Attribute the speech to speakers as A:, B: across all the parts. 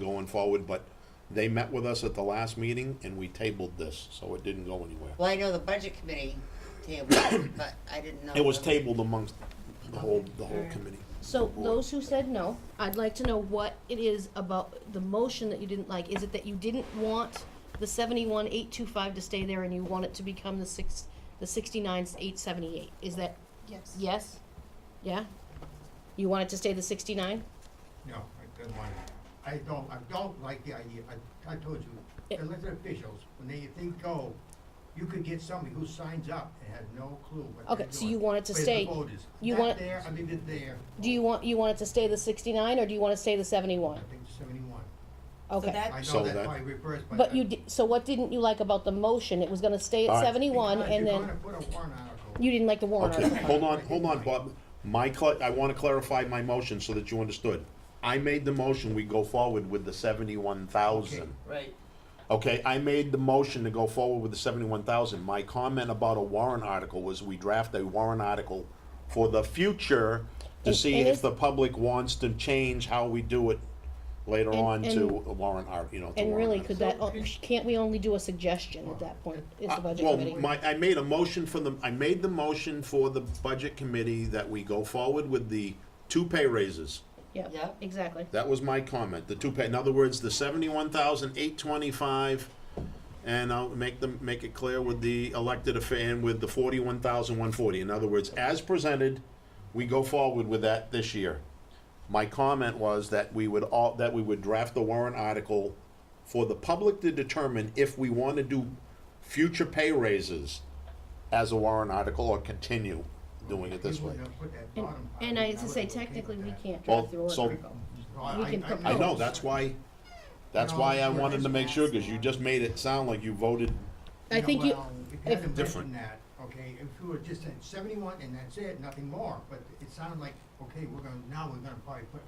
A: going forward, but they met with us at the last meeting and we tabled this, so it didn't go anywhere.
B: Well, I know the budget committee tabled it, but I didn't know.
A: It was
B: the-
A: tabled amongst the whole, the whole committee. the
C: So
A: board.
C: those who said no, I'd like to know what it is about the motion that you didn't like. Is it that you didn't want the seventy-one eight two five to stay there and you want it to become the six, the sixty-nine eight seventy-eight? Is that,
D: Yes.
C: yes? Yeah? You want it to stay the sixty-nine?
E: No, I don't want it. I don't, I don't like the idea, I, I told you,
C: It-
E: elected officials, when they think go, you could get somebody who signs up and has no clue what they're
C: Okay,
E: doing.
C: so you want it to
E: Where's the
C: stay-
E: voters?
C: you
E: That
C: want-
E: there, I leave it there,
C: Do you want, you want it to stay the sixty-nine or do you want to stay the
E: I
C: seventy-one?
E: think seventy-one.
D: So
C: Okay.
D: that-
E: I
A: So
E: know
A: that-
E: that's why I reversed, but.
C: But you di- so what didn't you like about the motion? It was gonna stay
A: All
C: at
A: right.
C: seventy-one and
E: Because
C: then,
E: you're gonna put a warrant article.
C: you didn't like the warrant
A: Okay,
C: article?
A: hold on, hold on, Bob. My, cl- I wanna clarify my motion so that you understood. I made the motion, we go forward with the seventy-one thousand.
B: Right.
A: Okay, I made the motion to go forward with the seventy-one thousand. My comment about a warrant article was we draft a warrant article for the future to
C: And-
A: see
C: and
A: if
C: if-
A: the public wants to change how we do it later
C: And-
A: on to
C: and-
A: a warrant art, you know, to
C: And
A: warrant
C: really,
A: article.
C: could that, oh, can't we only do a suggestion at that point, is the
A: Uh,
C: budget
A: well,
C: committee?
A: my, I made a motion for the, I made the motion for the budget committee that we go forward with the two pay raises.
C: Yeah,
B: Yep.
C: exactly.
A: That was my comment, the two pay, in other words, the seventy-one thousand eight twenty-five, and I'll make them, make it clear with the elected affair and with the forty-one thousand one forty. In other words, as presented, we go forward with that this year. My comment was that we would all, that we would draft the warrant article for the public to determine if we want to do future pay raises as a warrant article or continue doing it this
E: You
A: way.
E: wouldn't have put that
C: And,
E: bottom part
C: and
E: in.
C: I, as I
E: would
C: say,
E: have okay
C: technically,
E: with
C: we
E: that.
C: can't
A: Well,
C: draft the warrant
A: so-
C: article.
E: No, I-
C: we
E: I-
C: can
E: I
A: I
C: propose.
A: know, that's why, that's why I wanted to make sure, because you just made it sound like you voted
C: I think you,
E: Well,
C: if-
E: if you hadn't
A: Different.
E: written that, okay, if you were just at seventy-one and that's it, nothing more, but it sounded like, okay, we're gonna, now we're gonna probably put,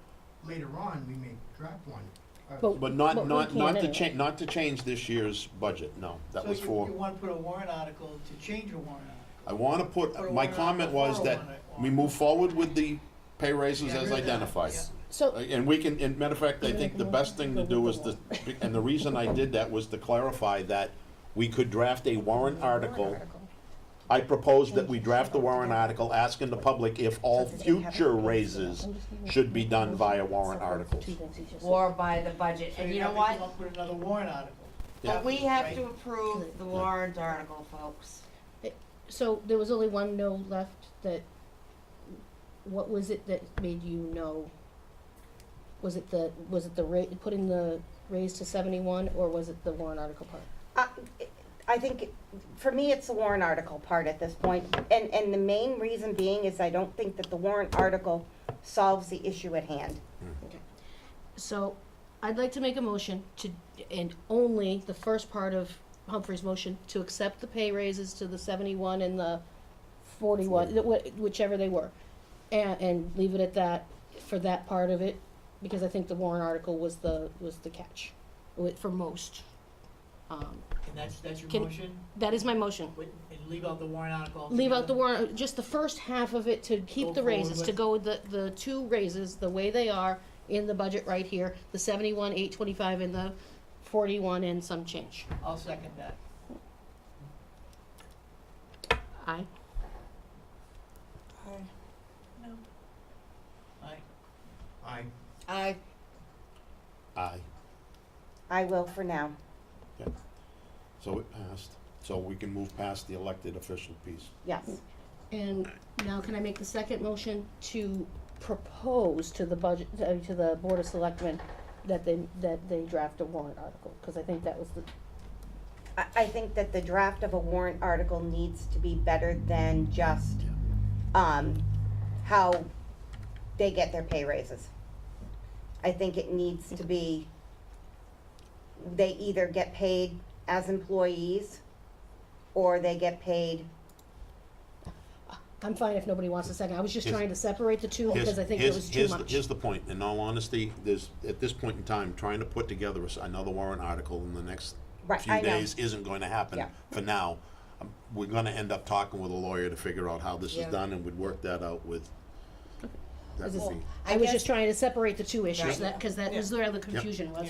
E: later on, we may draft one. Uh,
C: But-
A: But not,
C: But we
A: not,
C: can't
A: not to
C: anyway.
A: change, not to change this year's budget, no, that was
D: So you, you
A: for,
D: wanna put a warrant article to change a warrant
A: I
D: article?
A: wanna put,
D: Or
A: my
D: one,
A: comment
D: or
A: was that
D: one, or-
A: we move forward with the pay raises
D: Yeah,
A: as
D: yeah, yeah.
A: identified. Uh,
C: so,
A: And we can, and matter of fact, I think the best thing to do is to, and the reason I did that was to clarify that we could draft a warrant article. I proposed that we draft the warrant article asking the public if all future raises should be done via warrant articles.
B: Or by the budget,
D: So
B: and
D: you
B: you know
D: have to come
B: what?
D: up with another warrant article.
B: But we have to
D: Right.
B: approve the warrant article, folks.
C: so there was only one no left that, what was it that made you no? Was it the, was it the ra, putting the raise to seventy-one, or was it the warrant article part?
F: I Uh, I think, for me, it's the warrant article part at this point, and, and the main reason being is I don't think that the warrant article solves the issue at hand.
C: So, I'd like to make a motion to, and only the first part of Humphrey's motion, to accept the pay raises to the seventy-one and the forty-one, th- wh- whichever they were. And, and leave it at that, for that part of it, because I think the warrant article was the, was the catch, wi- for most. Um,
D: And that's, that's your
C: Can-
D: motion,
C: That is my motion.
D: Wait, and leave out the warrant article altogether?
C: Leave out the warrant, just the first half of it to keep
D: Go
C: the
D: forward
C: raises, to
D: with-
C: go with the, the two raises, the way they are in the budget right here, the seventy-one, eight twenty-five, and the forty-one and some change.
D: I'll second that.
C: Aye.
D: Aye.
E: I,
B: I,
A: Aye.
F: I will for now.
A: So it passed, so we can move past the elected official piece.
F: Yes,
C: And now can I make the second motion to propose to the budget, uh, to the Board of Selectmen that they, that they draft a warrant article, cause I think that was the,
F: I, I think that the draft of a warrant article needs to be better than just, um, how they get their pay raises. I think it needs to be, they either get paid as employees, or they get paid
C: I'm fine if nobody wants a second, I was just
A: Here's-
C: trying to separate the two,
A: Here's-
C: because I think it
A: here's-
C: was too
A: here's
C: much.
A: the- Here's the point, in all honesty, there's, at this point in time, trying to put together s- another warrant article in the next
F: Right,
A: few
F: I know.
A: days isn't going to happen
F: Yeah.
A: for now. Um, We're gonna end up talking with a lawyer to figure out how this is
B: Yeah.
A: done, and we'd work that out with. That
C: Is
A: would
C: this-
A: be-
C: I was
B: guess-
C: just trying to separate the two
B: Right.
C: issues, that, cause that was where the confusion was,